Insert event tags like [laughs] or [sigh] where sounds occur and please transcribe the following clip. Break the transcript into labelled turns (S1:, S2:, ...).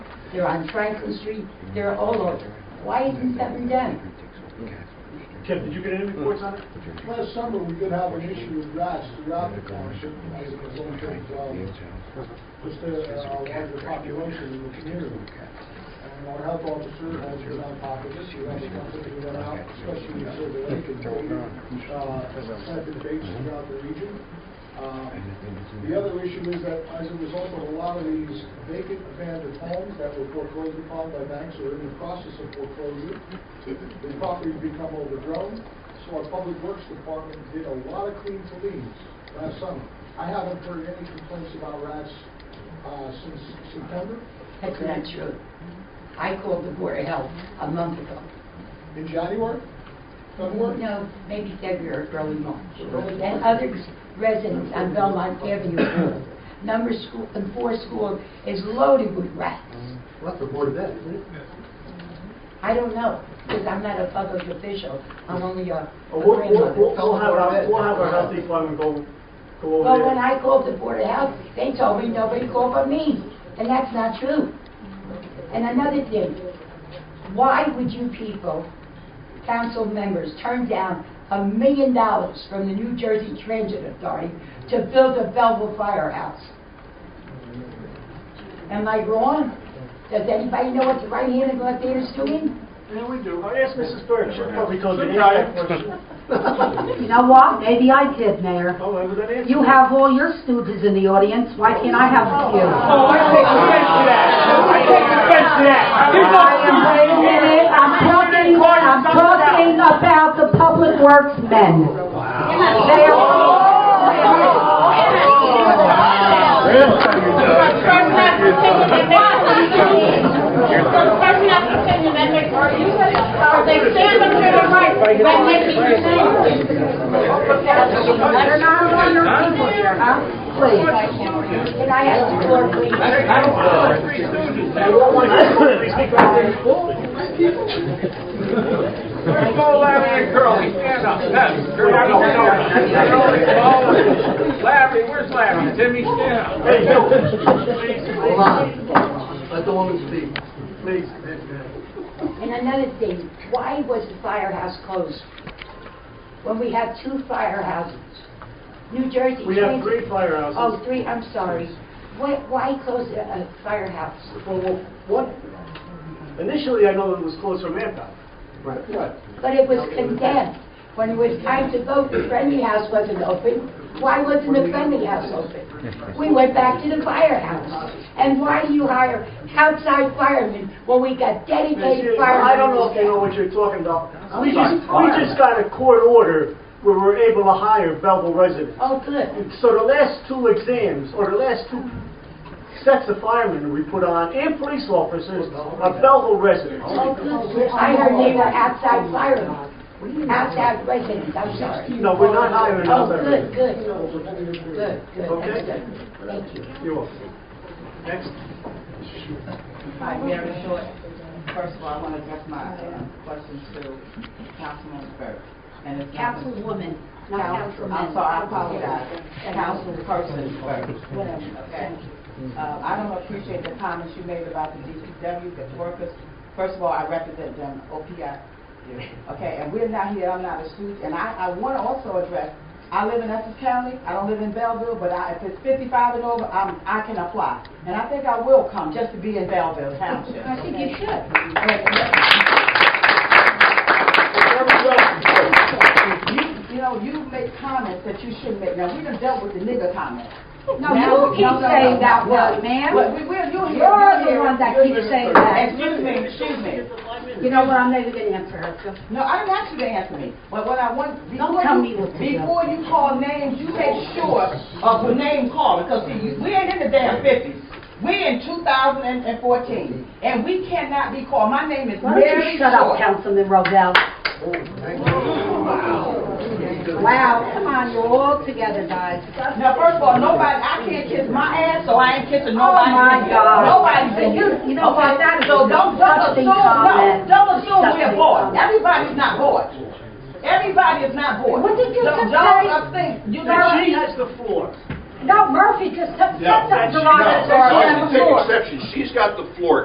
S1: they're on Franklin Street, they're all over. Why isn't something done?
S2: Tim, did you get any reports on it?
S3: Last summer, we did have an issue with rats throughout the township, because of some things, um, just a, a uh, larger population in the community. And our health officer has been on top of this, we have something we went out, especially in Silver Lake, and we, uh, set the debates throughout the region. Um, The other issue is that as a result of a lot of these vacant abandoned homes that were foreclosed upon by banks or in the process of foreclosure, the property become overgrown, so our public works department did a lot of clean to leaves last summer. I haven't heard any complaints about rats, uh, since September.
S1: That's not true. I called the Board of Health a month ago.
S3: In January, February?
S1: No, maybe February, early March. And other residents on Belmont Avenue, number school, and four school is loaded with rats.
S4: Well, that's the Board of Ed, isn't it?
S1: I don't know, because I'm not a public official, I'm only a a
S2: We'll, we'll, we'll
S1: grandmother.
S2: we'll have our, we'll have our health department go, go over
S1: Well,
S2: there.
S1: when I called the Board of Health, they told me nobody called but me, and that's not true. And another thing, why would you people, council members, turn down a million dollars from the New Jersey Transit Authority to build a Belleville firehouse? Am I wrong? Does anybody know what the right hand and left hand is doing?
S2: Yeah, we do. I asked Mrs. Burke, she probably told you the
S5: Sometime.
S2: answer question.
S5: You know what? Maybe I did, Mayor.
S2: Oh, I was that answer.
S5: You have all your students in the audience, why can't I have a few?
S2: Oh, I take offense to that. I take offense to that. There's no
S5: I am- Wait a minute, I'm talking, I'm talking about the public works men. They are all- They're not on your people here, huh? Please.
S1: Can I have the floor, please?
S2: [laughs] Please speak right there.
S6: Let's go, Larry and Curly, stand up. Yes, Curly, I don't know. Curly, oh, Larry, where's Larry? Timmy, stand up.
S2: Hey, Bill,
S4: Hold on, let the woman speak.
S2: please.
S1: And another thing, why was the firehouse closed? When we have two firehouses? New Jersey.
S2: We have
S1: Transit-
S2: three firehouses.
S1: Oh, three, I'm sorry. Why, why close a a firehouse?
S2: Well, well, what? Initially, I know it was closed from Manpower.
S4: Right.
S2: What?
S1: But it was condemned. When it was time to vote, the friendly house wasn't open. Why wasn't the friendly house open? We went back to the firehouse. And why do you hire outside firemen when we got dedicated firemen?
S2: I don't know if you know what you're talking about. We
S4: sorry,
S2: just, we just got a court order where we're able to hire Belleville residents.
S1: Oh, good.
S2: And So the last two exams, or the last two sets of firemen we put on, and police officers, are Belleville residents.
S1: I heard they were outside firemen, outside residents, I'm sorry.
S2: No, we're not hiring
S1: Oh,
S2: outside
S1: good, good,
S2: residents.
S1: good, good, that's
S2: Okay.
S1: good, thank you.
S2: You're welcome. Next.
S7: Hi, Mary Short. First of all, I want to address my um, question to Councilman Burke. And it's not-
S1: Councilwoman,
S7: Council- I'm sorry, I apologize. Councilperson Burke. Okay. Uh, I don't appreciate the comments you made about the DPW, the workers. First of all, I represent them, OPI. Okay, and we're not here, I'm not a student, and I, I want to also address, I live in Essex County, I don't live in Belleville, but I, if it's fifty-five and over, I'm, I can apply. And I think I will come just to be in Belleville Township.
S1: I think you should.
S7: You, you know, you make comments that you shouldn't make. Now, we done dealt with the nigger comment.
S5: No, you keep saying that word, ma'am.
S7: But we, we're, you're here.
S5: You're the
S7: here.
S5: one that keeps saying that.
S7: Excuse me, excuse me.
S5: You know what, I'm never gonna answer her.
S7: No, I didn't ask you to answer me, but what I want,
S5: Don't
S7: before
S5: tell
S7: you,
S5: me what to do.
S7: before you call names, you make sure of the name calling, because see, you- we ain't in the damn fifties. We in two thousand and fourteen, and we cannot be called, my name is
S5: Why don't
S7: Mary
S5: you shut up,
S7: Short.
S5: Councilman Robel? Wow, come on, you're all together, guys.
S7: Now, first of all, nobody, I can't kiss my ass, so I ain't kissing
S5: Oh,
S7: nobody.
S5: my God.
S7: Nobody's in
S5: You-
S7: here.
S5: you know
S7: Okay,
S5: what? That is a
S7: So don't, don't
S5: disgusting
S7: assume, no,
S5: comment.
S7: don't assume we're
S5: Disgusting
S7: bored.
S5: comment.
S7: Everybody's not bored. Everybody is not bored.
S5: What did you
S7: Don't-
S5: just say?
S7: Don't think, you know.
S2: Now, she has the floor.
S5: No, Murphy just said
S6: No,
S5: something
S6: No,
S5: derogatory
S6: I
S5: on
S6: can
S5: the floor.
S6: take exception. She's got the floor.